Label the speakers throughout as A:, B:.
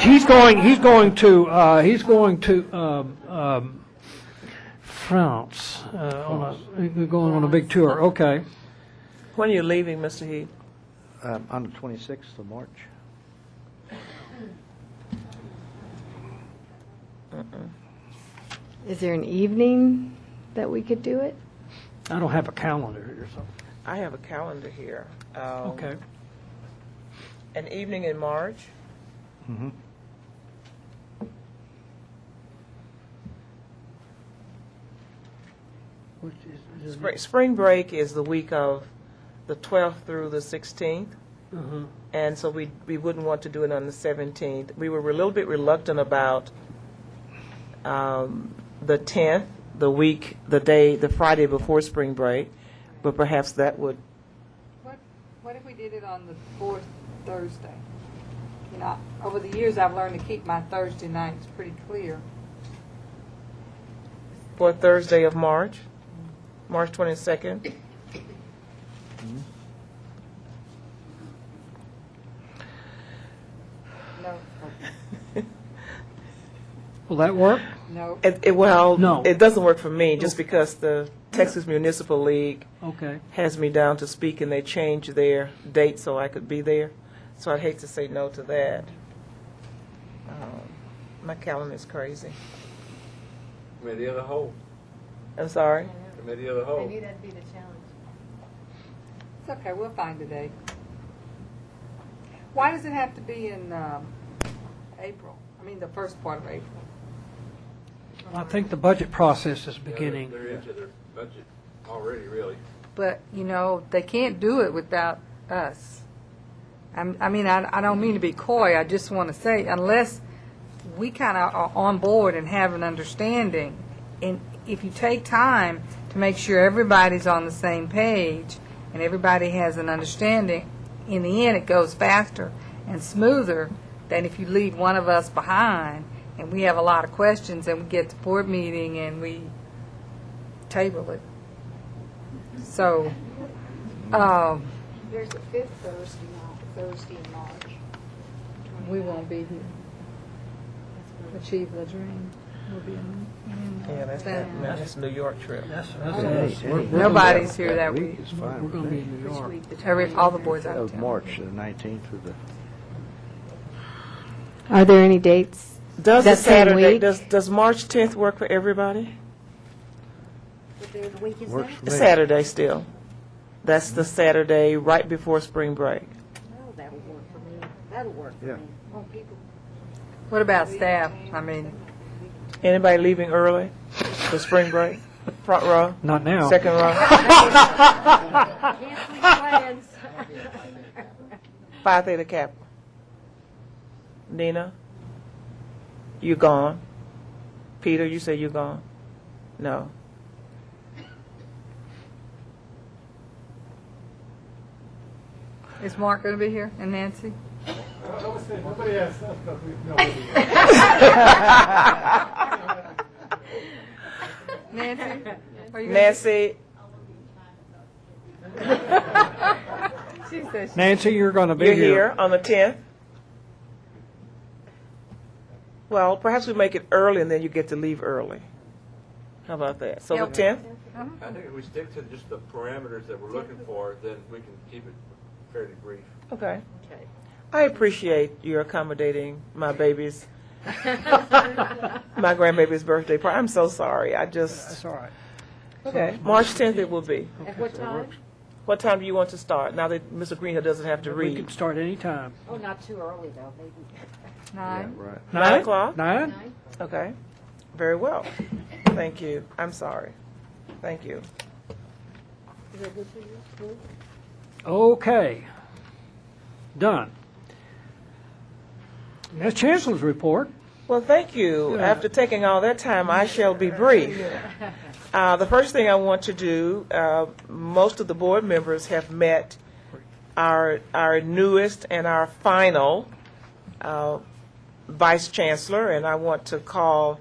A: He's going, he's going to, uh, he's going to um, um, France, uh, on a, they're going on a big tour, okay.
B: When are you leaving, Mr. Heath?
C: Um, On the 26th of March.
D: Is there an evening that we could do it?
A: I don't have a calendar here, so,
B: I have a calendar here. Um,
A: okay.
B: An evening in March?
C: Mhm.
A: Which is-
B: Spring, spring break is the week of the 12th through the 16th. Mm-hmm.
A: Mhm.
B: And so we, we wouldn't want to do it on the 17th. We were a little bit reluctant about um, the 10th, the week, the day, the Friday before spring break, but perhaps that would,
E: What, what if we did it on the fourth Thursday? You know, over the years, I've learned to keep my Thursday nights pretty clear.
B: for Thursday of March, March 22nd.
E: No,
A: Will that work?
E: no.
B: It, it, well,
A: No.
B: it doesn't work for me just because the Texas Municipal League
A: Okay.
B: has me down to speak and they changed their date so I could be there. So I'd hate to say no to that. Um, my calendar is crazy.
F: Committee of the whole.
B: I'm sorry.
F: Committee of the whole.
G: Maybe that'd be the challenge.
E: It's okay, we'll find a day. Why does it have to be in, um, April? I mean, the first part of April?
A: I think the budget process is
F: Yeah, they're-
A: beginning.
F: They're into their budget already, really.
E: But, you know, they can't do it without us. I'm, I mean, I, I don't mean to be coy, I just want to say, unless we kind of are on board and have an understanding, and if you take time to make sure everybody's on the same page and everybody has an understanding, in the end, it goes faster and smoother than if you leave one of us behind and we have a lot of questions and we get to board meeting and we table it. So, um,
H: There's a fifth Thursday night, Thursday in March.
D: We won't be here. Achieve the dream. We'll be in.
B: Yeah, that's, that, man, that's New York trip.
A: That's, that's, we're, we're
E: nobody's here that week.
C: week is fine.
A: gonna
C: with
A: be
C: me.
A: in New York.
E: Every, all the boys out of
C: Of
E: town.
C: March, the 19th through the
D: Are there any dates?
B: Does the
D: That same
B: Saturday,
D: week?
B: does, does March 10th work for everybody?
H: But they're the week is
C: works for
H: that?
C: me.
B: Saturday still. That's the Saturday right before spring break.
H: Oh, that'll work for me. That'll work for
C: Yeah.
H: me. Well, people
E: What about staff? I mean,
B: Anybody leaving early for spring break? Front row?
A: Not now.
B: Second row?
H: can't make plans.
B: Phi Theta Kappa. Nina? You gone? Peter, you say you gone? No.
E: is Mark going to be here and Nancy? Nancy, are you? gonna-
B: Nancy,
E: She says she-
A: Nancy, you're gonna be
B: you're
A: here.
B: here on the 10th? Well, perhaps we make it early and then you get to leave early. How about that? So the
E: Yep.
B: 10th?
F: I think if we stick to just the parameters that we're looking for, then we can keep it fairly brief.
B: Okay. I appreciate your accommodating my baby's, my grandbaby's birthday party. I'm so sorry. I just,
A: That's all right.
B: okay. March 10th it will be.
H: At what time?
B: What time do you want to start? Now that Mr. Greenhill doesn't have to
A: We can
B: read.
A: start any time.
H: Oh, not too early though, maybe.
E: Nine.
C: Right.
B: Nine o'clock?
A: Nine?
B: Okay. Very well. Thank you. I'm sorry. Thank you.
A: Okay. Done. That's Chancellor's report.
B: Well, thank you. After taking all that time, I shall be brief. Uh, The first thing I want to do, uh, most of the board members have met our our newest and our final uh, vice chancellor, and I want to call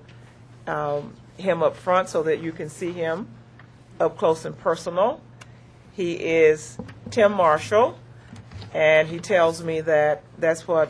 B: um, him up front so that you can see him up close and personal. He is Tim Marshall, and he tells me that that's what